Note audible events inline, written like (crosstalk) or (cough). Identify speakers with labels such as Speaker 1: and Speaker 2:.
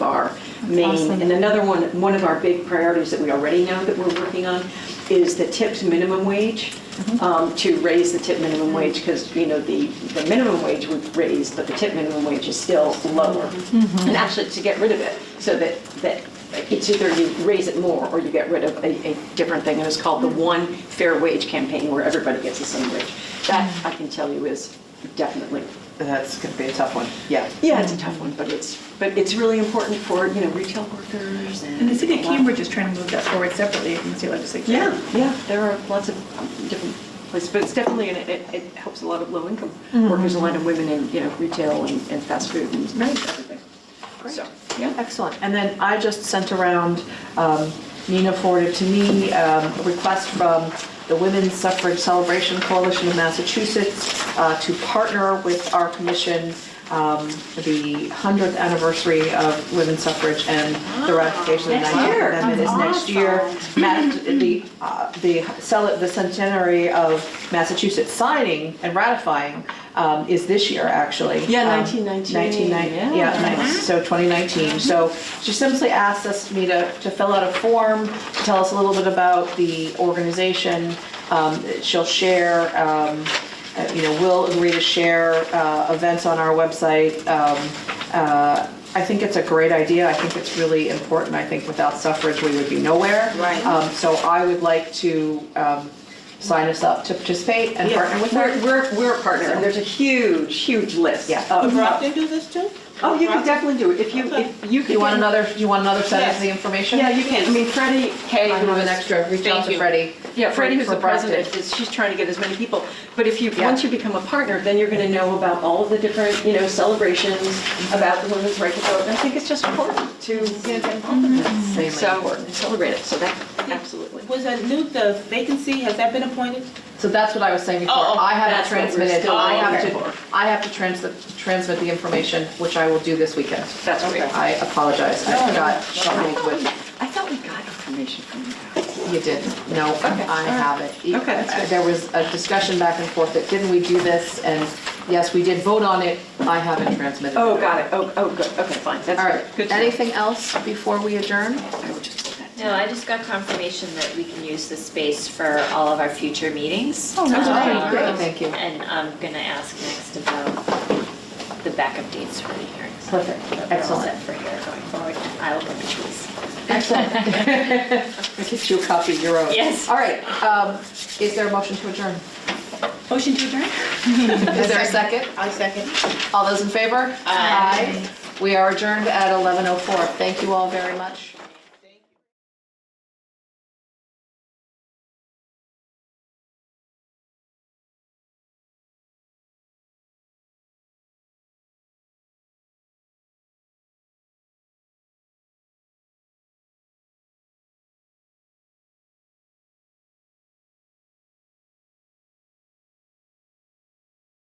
Speaker 1: Maine.
Speaker 2: Awesome.
Speaker 1: And another one, one of our big priorities that we already know that we're working on is the tipped minimum wage, um, to raise the tip minimum wage, because, you know, the, the minimum wage we've raised, but the tip minimum wage is still lower. And actually, to get rid of it, so that, that it's either you raise it more or you get rid of a, a different thing. And it's called the One Fair Wage Campaign, where everybody gets the same wage. That, I can tell you, is definitely
Speaker 3: That's going to be a tough one, yeah.
Speaker 1: yeah, it's a tough one, but it's, but it's really important for, you know, retail workers and.
Speaker 4: And the city of Cambridge is trying to move that forward separately from the state legislature.
Speaker 1: Yeah, yeah, there are lots of different places, but it's definitely, and it, it- it helps a lot of low-income workers, a lot of women in, you know, retail and and fast food and everything. So, yeah.
Speaker 3: Excellent. And then I just sent around, um, Nina forwarded to me, um, a request from the Women's Suffrage Celebration Coalition of Massachusetts uh, to partner with our commission um, for the 100th anniversary of women's suffrage and the ratification of the
Speaker 2: Next
Speaker 3: 19th
Speaker 2: year.
Speaker 3: Amendment is
Speaker 2: That's
Speaker 3: next year. Mass- The, uh, the cel- the centenary of Massachusetts signing and ratifying um, is this year, actually.
Speaker 1: Yeah,
Speaker 3: Um,
Speaker 1: 1919.
Speaker 3: 1919, yeah,
Speaker 1: Yeah.
Speaker 3: nice. so 2019. So she simply asked us, me to, to fill out a form, to tell us a little bit about the organization. Um, She'll share, um, uh, you know, we'll agree to share uh, events on our website. Um, uh, I think it's a great idea. I think it's really important. I think without suffrage, we would be nowhere.
Speaker 1: Right.
Speaker 3: Um, So I would like to um, sign us up to participate and partner with
Speaker 1: We're,
Speaker 3: her.
Speaker 1: we're, we're a partner, and there's a huge, huge list.
Speaker 3: Yeah. Oh,
Speaker 1: of-
Speaker 5: Can do this too?
Speaker 1: Oh, you can definitely do it, if you,
Speaker 5: Okay.
Speaker 1: if you could.
Speaker 3: You want another, you want another set of the information?
Speaker 1: Yeah, you can, I mean, Freddie Kay.
Speaker 3: I have
Speaker 1: who
Speaker 3: an
Speaker 1: is-
Speaker 3: extra, reach out
Speaker 5: Thank
Speaker 3: to
Speaker 5: you.
Speaker 3: Freddie.
Speaker 1: Yeah, Freddie, who's
Speaker 3: for
Speaker 1: the president,
Speaker 3: Brockton.
Speaker 1: is, she's trying to get as many people. But if you,
Speaker 3: Yeah.
Speaker 1: once you become a partner, then you're going to know about all of the different, you know, celebrations about the women's right to vote. And I think it's just important to get involved in this.
Speaker 3: Extremely
Speaker 1: So,
Speaker 3: important.
Speaker 1: and celebrate it, so that, absolutely.
Speaker 5: Was that new, the vacancy, has that been appointed?
Speaker 3: So that's what I was saying before,
Speaker 5: Oh, oh,
Speaker 3: I haven't
Speaker 1: that's what we're
Speaker 3: transmitted,
Speaker 1: still
Speaker 3: I have
Speaker 1: looking
Speaker 3: to, I have to transmit, transmit the information, which I will do this weekend.
Speaker 1: That's great.
Speaker 3: I apologize, I forgot,
Speaker 1: I
Speaker 3: something
Speaker 1: thought we-
Speaker 3: with,
Speaker 1: I thought we got information from you guys.
Speaker 3: you did, no, I have it. E-
Speaker 1: Okay, that's good.
Speaker 3: There was a discussion back and forth that didn't we do this, and yes, we did vote on it, I haven't transmitted.
Speaker 1: Oh, got it, oh, oh, good, okay, fine, that's good.
Speaker 3: All right,
Speaker 1: Good to know.
Speaker 3: anything else before we adjourn?
Speaker 1: I would just put that down.
Speaker 6: No, I just got confirmation that we can use the space for all of our future meetings. Oh,
Speaker 3: that's great. Great, thank you.
Speaker 6: And I'm gonna ask next about the backup dates for the hearings.
Speaker 3: Perfect,
Speaker 6: But we're all
Speaker 3: excellent.
Speaker 6: set for here going forward. I will put the cheese.
Speaker 3: (laughs) Excellent. Get you a copy of your own.
Speaker 6: Yes.
Speaker 3: All right, um, is there a motion to adjourn?
Speaker 4: Motion to adjourn?
Speaker 3: Is there a second?
Speaker 5: I second.
Speaker 3: All those in favor? Aye. We are adjourned at 11:04. Thank you all very much.